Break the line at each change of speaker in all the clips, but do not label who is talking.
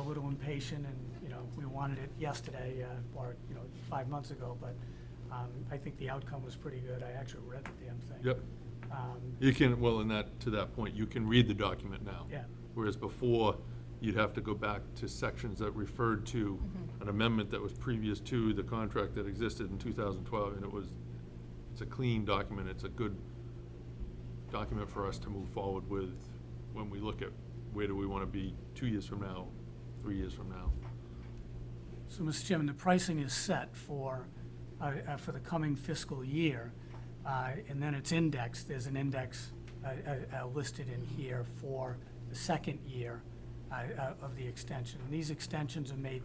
little impatient and, you know, we wanted it yesterday, uh, or, you know, five months ago, but, um, I think the outcome was pretty good. I actually read the damn thing.
Yep.
Um,
You can, well, in that, to that point, you can read the document now.
Yeah.
Whereas before, you'd have to go back to sections that referred to an amendment that was previous to the contract that existed in two thousand twelve, and it was, it's a clean document, it's a good document for us to move forward with when we look at where do we want to be two years from now, three years from now.
So, Mr. Chairman, the pricing is set for, uh, uh, for the coming fiscal year, uh, and then it's indexed, there's an index uh, uh, uh, listed in here for the second year uh, uh, of the extension. And these extensions are made,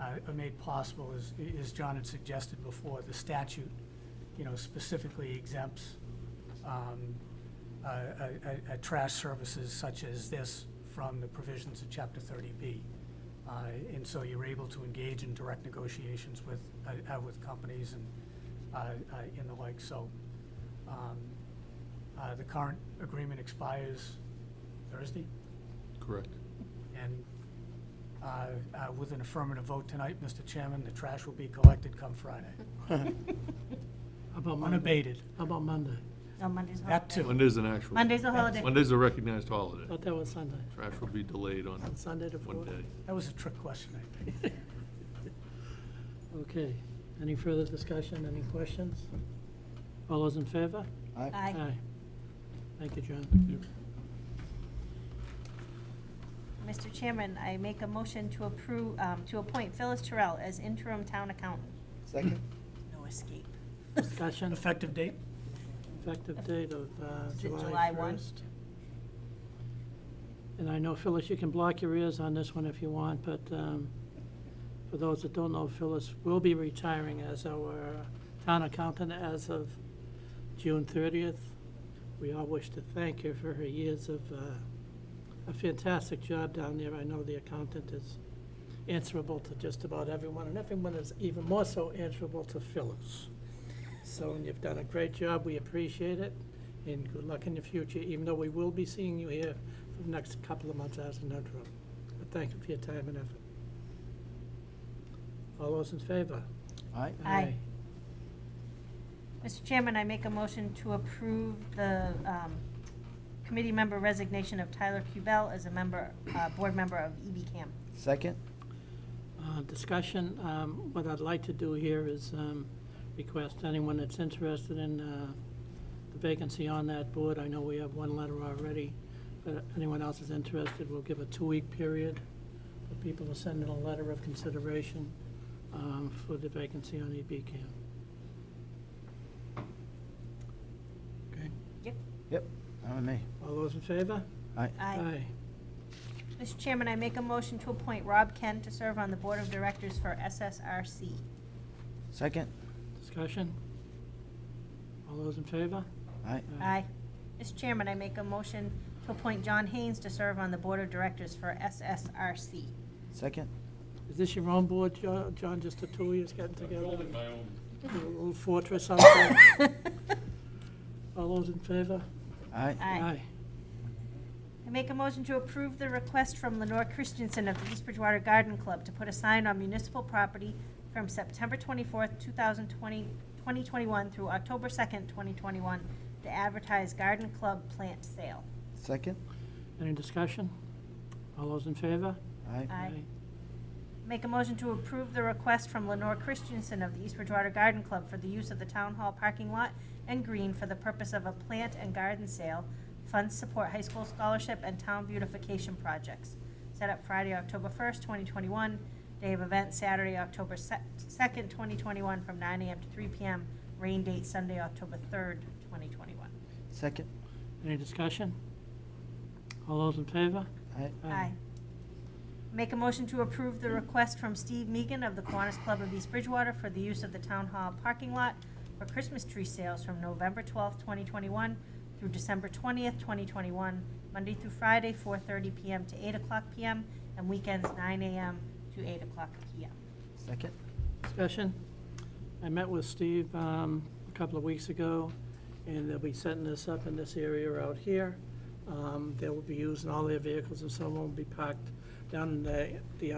uh, are made possible, as, as John had suggested before, the statute, you know, specifically exempts um, uh, uh, uh, trash services such as this from the provisions of Chapter 30B. Uh, And so you're able to engage in direct negotiations with, uh, uh, with companies and, uh, uh, and the like. So um, uh, the current agreement expires Thursday,
Correct.
and uh, uh, with an affirmative vote tonight, Mr. Chairman, the trash will be collected come Friday,
How about Monday?
unabated.
How about Monday?
No, Monday's a
That
holiday.
too.
Monday's an actual.
Monday's a holiday.
Monday's a recognized holiday.
Thought that was Sunday.
Trash will be delayed on
Sunday the
one
fourth.
day.
That was a trick question, I think.
Okay. Any further discussion? Any questions? All those in favor?
Aye.
Thank you, John.
Mr. Chairman, I make a motion to approve, um, to appoint Phyllis Terrell as interim town accountant.
Second?
No escape.
Discussion,
Effective date?
effective date of uh,
Is it
July
July 1?
1st. And I know, Phyllis, you can block your ears on this one if you want, but um, for those that don't know, Phyllis will be retiring as our town accountant as of June 30th. We all wish to thank her for her years of uh, a fantastic job down there. I know the accountant is answerable to just about everyone, and everyone is even more so answerable to Phyllis. So, and you've done a great job, we appreciate it, and good luck in the future, even though we will be seeing you here for the next couple of months as an interim. But thank you for your time and effort. All those in favor?
Aye.
Aye. Mr. Chairman, I make a motion to approve the um, committee member resignation of Tyler Cubell as a member, uh, board member of EB Cam.
Second?
Uh, Discussion, um, what I'd like to do here is um, request anyone that's interested in uh, the vacancy on that board, I know we have one letter already, but if anyone else is interested, we'll give a two-week period for people to send in a letter of consideration um, for the vacancy on E EB Cam. Okay,
Yep.
Yep. I'm a me.
all those in favor?
Aye.
Aye.
Aye.
Mr. Chairman, I make a motion to appoint Rob Kent to serve on the board of directors for SSRC.
Second?
Discussion? All those in favor?
Aye.
Aye. Mr. Chairman, I make a motion to appoint John Haynes to serve on the board of directors for SSRC.
Second?
Is this your own board, Jo- John, just the two of you getting together?
Building my own
A little fortress out there. All those in favor?
Aye.
Aye. I make a motion to approve the request from Lenore Christensen of the East Bridgewater Garden Club to put a sign on municipal property from September 24th, 2020, 2021 through October 2nd, 2021, to advertise garden club plant sale.
Second?
Any discussion? All those in favor?
Aye.
Aye. Make a motion to approve the request from Lenore Christensen of the East Bridgewater Garden Club for the use of the town hall parking lot and green for the purpose of a plant and garden sale. Funds support high school scholarship and town beautification projects. Set up Friday, October first, twenty twenty-one. Day of event Saturday, October second, twenty twenty-one, from nine AM to three PM. Rain date Sunday, October third, twenty twenty-one.
Second?
Any discussion? All those in favor?
Aye.
Aye. Make a motion to approve the request from Steve Meagan of the Kiwanis Club of East Bridgewater for the use of the town hall parking lot for Christmas tree sales from November twelfth, twenty twenty-one through December twentieth, twenty twenty-one, Monday through Friday, four thirty PM to eight o'clock PM, and weekends, nine AM to eight o'clock PM.
Second?
Discussion? I met with Steve um, a couple of weeks ago, and they'll be setting this up in this area out here. Um, They will be using all their vehicles, and some will be parked down in the the